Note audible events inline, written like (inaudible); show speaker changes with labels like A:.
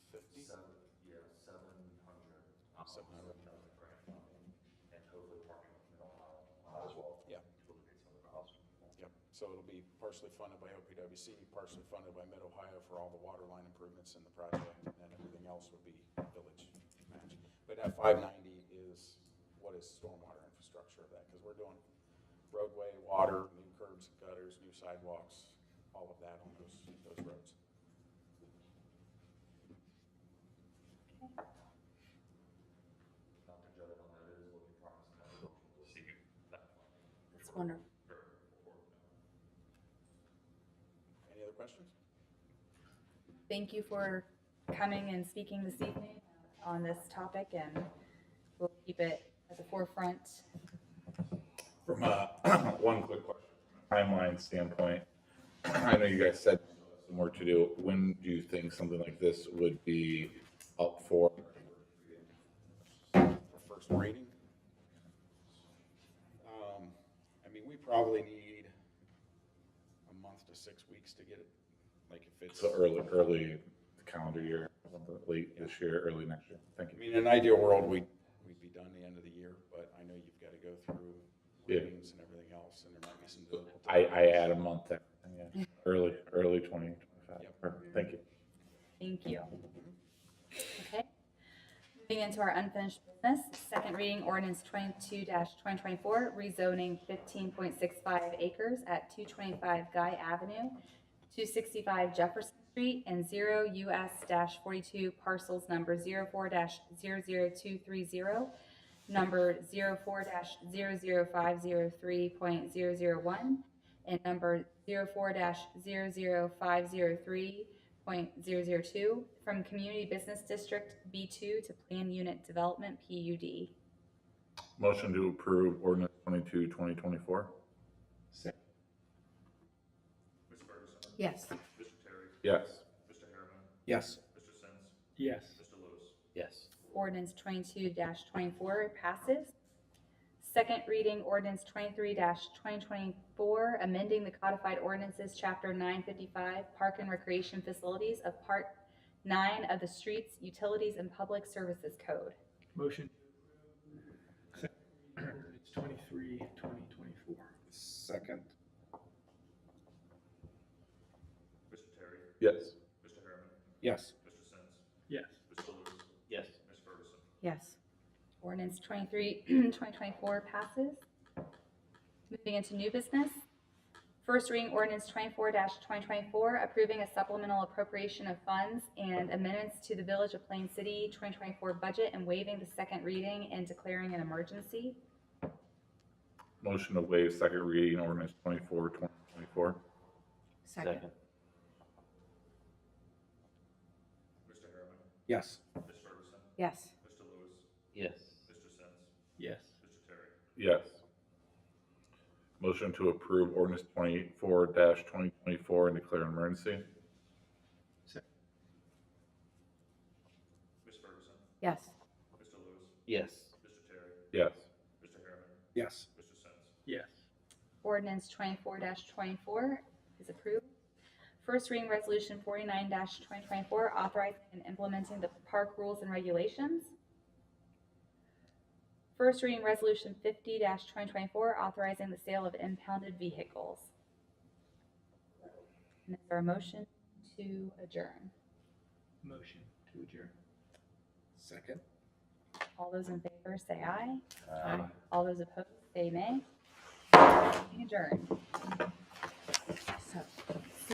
A: somehow or another.
B: And hopefully partnering with Middle Ohio as well.
A: Yeah.
B: To look at some of the houses.
A: Yep, so it'll be partially funded by OPWC, partially funded by Mid-Ohio for all the water line improvements in the project, and then everything else would be village match. But that five ninety is, what is stormwater infrastructure of that? Because we're doing roadway, water, new curbs, gutters, new sidewalks, all of that on those, those roads.
B: Dr. Judd on that is looking promising. We'll see you at that point.
C: That's wonderful.
A: Any other questions?
C: Thank you for coming and speaking this evening on this topic, and we'll keep it at the forefront.
D: From a, (clears throat) one quick question, timeline standpoint, (clears throat) I know you guys said some work to do. When do you think something like this would be up for?
A: for first reading. Um, I mean, we probably need a month to six weeks to get it, like if it's.
D: So early, early calendar year, late this year, early next year. Thank
A: I
D: you.
A: mean, in an ideal world, we'd, we'd be done the end of the year, but I know you've got to go through
D: Yeah.
A: readings and everything else, and there might be some.
D: I, I add a month there. Yeah. Early, early 2025.
A: Yep.
D: Perfect. Thank you.
C: Thank you. Okay. Moving into our unfinished business, second reading ordinance twenty-two twenty twenty-four, rezoning fifteen point six five acres at two twenty-five Guy Avenue, two sixty-five Jefferson Street, and zero US forty-two parcels number 4 zero zero two three zero, number 4 zero zero five zero three point zero zero one, and number 04-00503.002 from Community Business District B2 to Plan Unit Development PUD.
D: Motion to approve ordinance 22, 2024?
B: Mr. Ferguson.
C: Yes.
B: Mr. Terry.
D: Yes.
B: Mr. Harriman.
E: Yes.
B: Mr. Sins.
E: Yes.
B: Mr. Lewis.
E: Yes.
C: Ordinance 22-24 passes. Second reading ordinance 23-2024, amending the codified ordinances, Chapter 955, Park and Recreation Facilities of Part 9 of the Streets, Utilities, and Public Services Code.
F: Motion. It's twenty-three, twenty twenty-four.
E: Second.
B: Mr. Terry.
D: Yes.
B: Mr. Harriman.
E: Yes.
B: Mr. Sins.
F: Yes.
B: Mr. Lewis.
E: Yes.
B: Ms. Ferguson.
C: Yes. Ordinance (clears throat) 23, 2024 passes. Moving into new business. First reading ordinance 24-2024, approving a supplemental appropriation of funds and amendments to the Village of Plain City 2024 budget and waiving the second reading and declaring an emergency.
D: Motion to waive second reading ordinance 24, 2024?
E: Second.
B: Mr. Harriman.
E: Yes.
B: Ms. Ferguson.
C: Yes.
B: Mr. Lewis.
E: Yes.
B: Mr. Sins.
F: Yes.
B: Mr. Terry.
D: Yes. Motion to approve ordinance twenty-four twenty twenty-four and declare an emergency?
B: Ms. Ferguson.
C: Yes.
B: Mr. Lewis.
E: Yes.
B: Mr. Terry.
D: Yes.
B: Mr. Harriman.
E: Yes.
B: Mr. Sins.
F: Yes.
C: Ordinance twenty-four twenty-four is approved. First reading resolution forty-nine twenty twenty-four, authorizing and implementing the park rules and regulations. First reading resolution fifty twenty twenty-four, authorizing the sale of impounded vehicles. And is there a motion to adjourn?
F: Motion to adjourn.
E: Second.
C: All those in favor say aye. Aye. All those opposed say nay. Adjourn.